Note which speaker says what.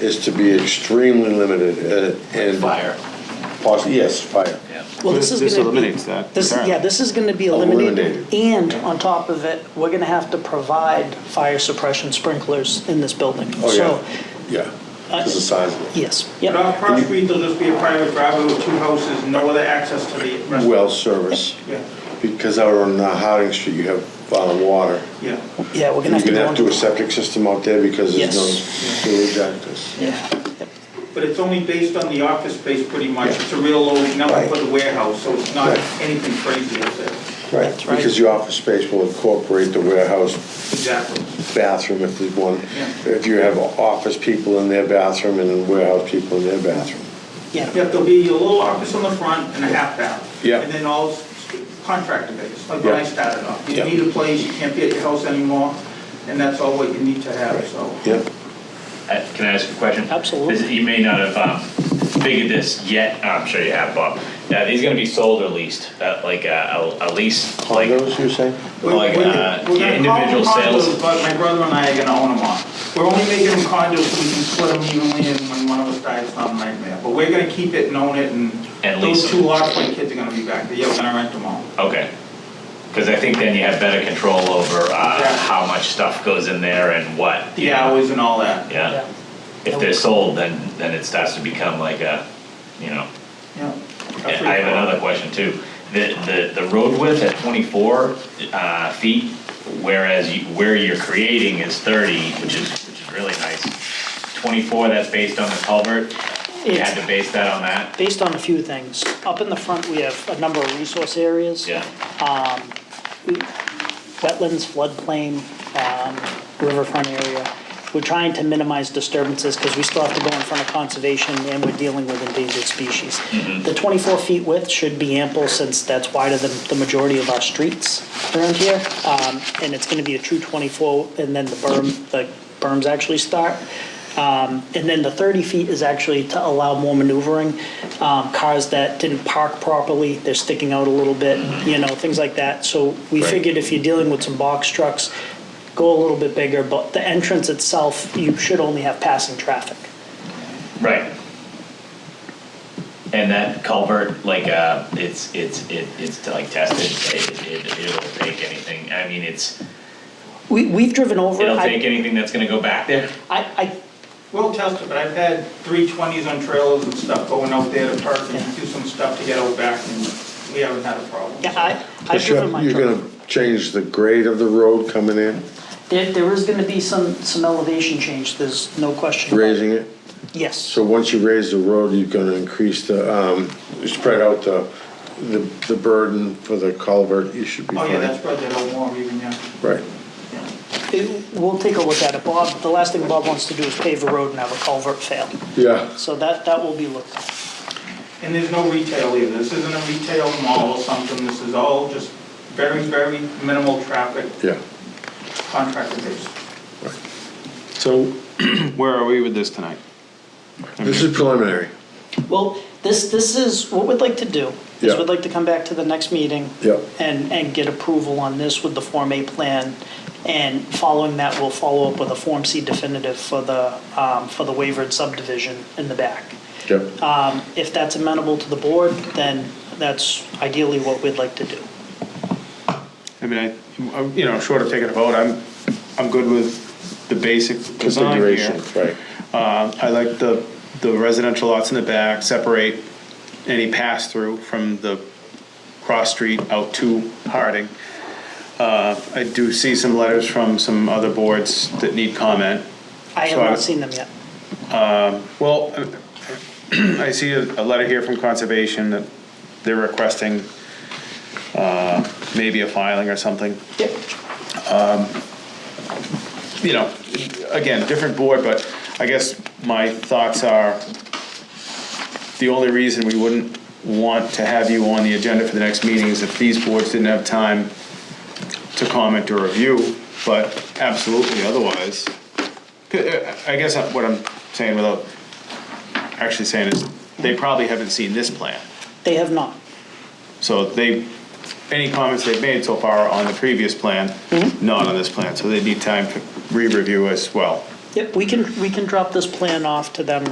Speaker 1: is to be extremely limited and- and.
Speaker 2: Fire.
Speaker 1: Possi- yes, fire.
Speaker 3: Well, this is
Speaker 4: This
Speaker 3: gonna-
Speaker 4: eliminates that,
Speaker 3: This, yeah,
Speaker 4: apparently.
Speaker 3: this is gonna be eliminated,
Speaker 1: Eliminated.
Speaker 3: and on top of it, we're gonna have to provide fire suppression sprinklers in this building.
Speaker 1: Oh,
Speaker 3: So,
Speaker 1: yeah, yeah, because the size of it.
Speaker 3: yes, yep,
Speaker 5: Down Cross Street, there'll just be a private driveway with two houses, no other access to the rest.
Speaker 1: Well service,
Speaker 5: Yeah,
Speaker 1: because out on uh, Harding Street, you have uh, water.
Speaker 5: yeah.
Speaker 3: yeah, we're
Speaker 1: You're
Speaker 3: gonna have to
Speaker 1: gonna
Speaker 3: go
Speaker 1: have to do a
Speaker 3: into.
Speaker 1: septic system out there because there's no
Speaker 3: Yes.
Speaker 1: sewage access.
Speaker 5: But it's only based on the office space pretty much.
Speaker 1: Yeah.
Speaker 5: It's a real low number
Speaker 1: Right.
Speaker 5: for the warehouse, so it's not
Speaker 1: Right.
Speaker 5: anything crazy out there.
Speaker 1: Right,
Speaker 3: That's right.
Speaker 1: because the office space will incorporate the warehouse
Speaker 5: Exactly.
Speaker 1: bathroom if there's one.
Speaker 5: Yeah.
Speaker 1: If you have office people in their bathroom and warehouse people in their bathroom.
Speaker 3: Yeah,
Speaker 5: Yeah, there'll be a little office on the front and a half bath.
Speaker 1: Yeah.
Speaker 5: And then all s- contractor based, like when I
Speaker 1: Yeah.
Speaker 5: started off. You
Speaker 1: Yeah.
Speaker 5: need a place, you can't be at your house anymore, and that's all what you need to have, so.
Speaker 1: Yep,
Speaker 2: Uh, Can I ask a question?
Speaker 3: Absolutely.
Speaker 2: This- You may not have um, figured this yet, Oh, I'm sure you have, Bob. Now, these gonna be sold or leased, Uh, like uh, a a lease, like,
Speaker 1: condos, you're saying?
Speaker 5: We're-
Speaker 2: Like,
Speaker 5: we're-
Speaker 2: uh,
Speaker 5: we're
Speaker 2: yeah,
Speaker 5: gonna call them
Speaker 2: individual
Speaker 5: condos,
Speaker 2: sales.
Speaker 5: But my brother and I are gonna own them all. We're only making them condos so we can split them evenly and when one of us dies, it's not a nightmare. But we're gonna keep it and own it and
Speaker 2: And lease
Speaker 5: those two
Speaker 2: them.
Speaker 5: lots, my kids are gonna be back there. Yeah, we're gonna rent them all.
Speaker 2: okay. Because I think then you have better control over uh,
Speaker 5: Yeah.
Speaker 2: how much stuff goes in there and what.
Speaker 5: The hours and all that.
Speaker 2: Yeah.
Speaker 3: yeah,
Speaker 2: If they're sold, then, then it starts to become like a, you know,
Speaker 5: Yeah.
Speaker 2: I have another question too. The, the, the road width at twenty-four, uh, feet, whereas you, where you're creating is thirty, which is, which is really nice. Twenty-four, that's based on the culvert, you had
Speaker 3: It's-
Speaker 2: to base that on that,
Speaker 3: based on a few things. Up in the front, we have a number of resource areas.
Speaker 2: yeah,
Speaker 3: wetlands, floodplain, um, riverfront area. We're trying to minimize disturbances because we still have to go in front of conservation and we're dealing with endangered species. The 24 feet width should be ample since that's wider than the majority of our streets around here. Um, And it's going to be a true 24 and then the berm, the berms actually start. Um, And then the 30 feet is actually to allow more maneuvering. Um, Cars that didn't park properly, they're sticking out a little bit, you know, things like that. So we
Speaker 2: Right.
Speaker 3: figured if you're dealing with some box trucks, go a little bit bigger, but the entrance itself, you should only have passing traffic.
Speaker 2: right. And that culvert, like, uh, it's, it's, it, it's like tested, it, it, it'll take anything, I mean, it's,
Speaker 3: We, we've driven over. it.
Speaker 2: it'll
Speaker 3: I-
Speaker 2: take anything that's gonna go back there.
Speaker 3: I, I,
Speaker 5: We'll test it, but I've had three twenties on trailers and stuff going out there to park and do some stuff to get out back and we haven't had a problem.
Speaker 3: yeah, I, I've
Speaker 1: But you're
Speaker 3: driven my
Speaker 1: you're
Speaker 3: truck.
Speaker 1: gonna change the grade of the road coming in,
Speaker 3: There, there is gonna be some, some elevation change, there's no question. about it.
Speaker 1: raising it?
Speaker 3: Yes,
Speaker 1: So once you raise the road, you're gonna increase the, um, spread out the, the the burden for the culvert, you should be
Speaker 5: Oh,
Speaker 1: fine.
Speaker 5: yeah, that's probably that old warm even, yeah.
Speaker 1: Right.
Speaker 5: Yeah.
Speaker 3: It- we'll take a look at it, Bob, the last thing Bob wants to do is pave a road and have a culvert fail.
Speaker 1: Yeah,
Speaker 3: So that, that will be looked at.
Speaker 5: And there's no retail either, this isn't a retail mall or something, this is all just very, very minimal traffic
Speaker 1: yeah.
Speaker 5: contractor base.
Speaker 4: So where are we with this tonight?
Speaker 1: This is preliminary.
Speaker 3: Well, this, this is, what we'd like to do, is
Speaker 1: Yeah.
Speaker 3: we'd like to come back to the next meeting.
Speaker 1: Yeah.
Speaker 3: And, and get approval on this with the Form A plan, and following that, we'll follow up with a Form C definitive for the, um, for the wavered subdivision in the back.
Speaker 1: Yep.
Speaker 3: Um, If that's amenable to the board, then that's ideally what we'd like to do.
Speaker 4: I mean, I, I'm, you know, short of taking a vote, I'm, I'm good with the basic design here.
Speaker 1: Configuration, right.
Speaker 4: Uh, I like the, the residential lots in the back, separate any pass-through from the cross street out to Harding. Uh, I do see some letters from some other boards that need comment.
Speaker 3: I have
Speaker 4: So I-
Speaker 3: not seen them yet.
Speaker 4: Well, I see a a letter here from Conservation that they're requesting uh, maybe a filing or something. Um,
Speaker 3: Yep.
Speaker 4: You know, again, different board, but I guess my thoughts are, the only reason we wouldn't want to have you on the agenda for the next meeting is if these boards didn't have time to comment or review, but absolutely otherwise. uh, I guess what I'm saying without actually saying is, they probably haven't seen this plan.
Speaker 3: They have not.
Speaker 4: So they, any comments they've made so far on the previous plan, not on this plan, so they need time to re-review as well.
Speaker 3: Yep, we can, we can drop this plan off to them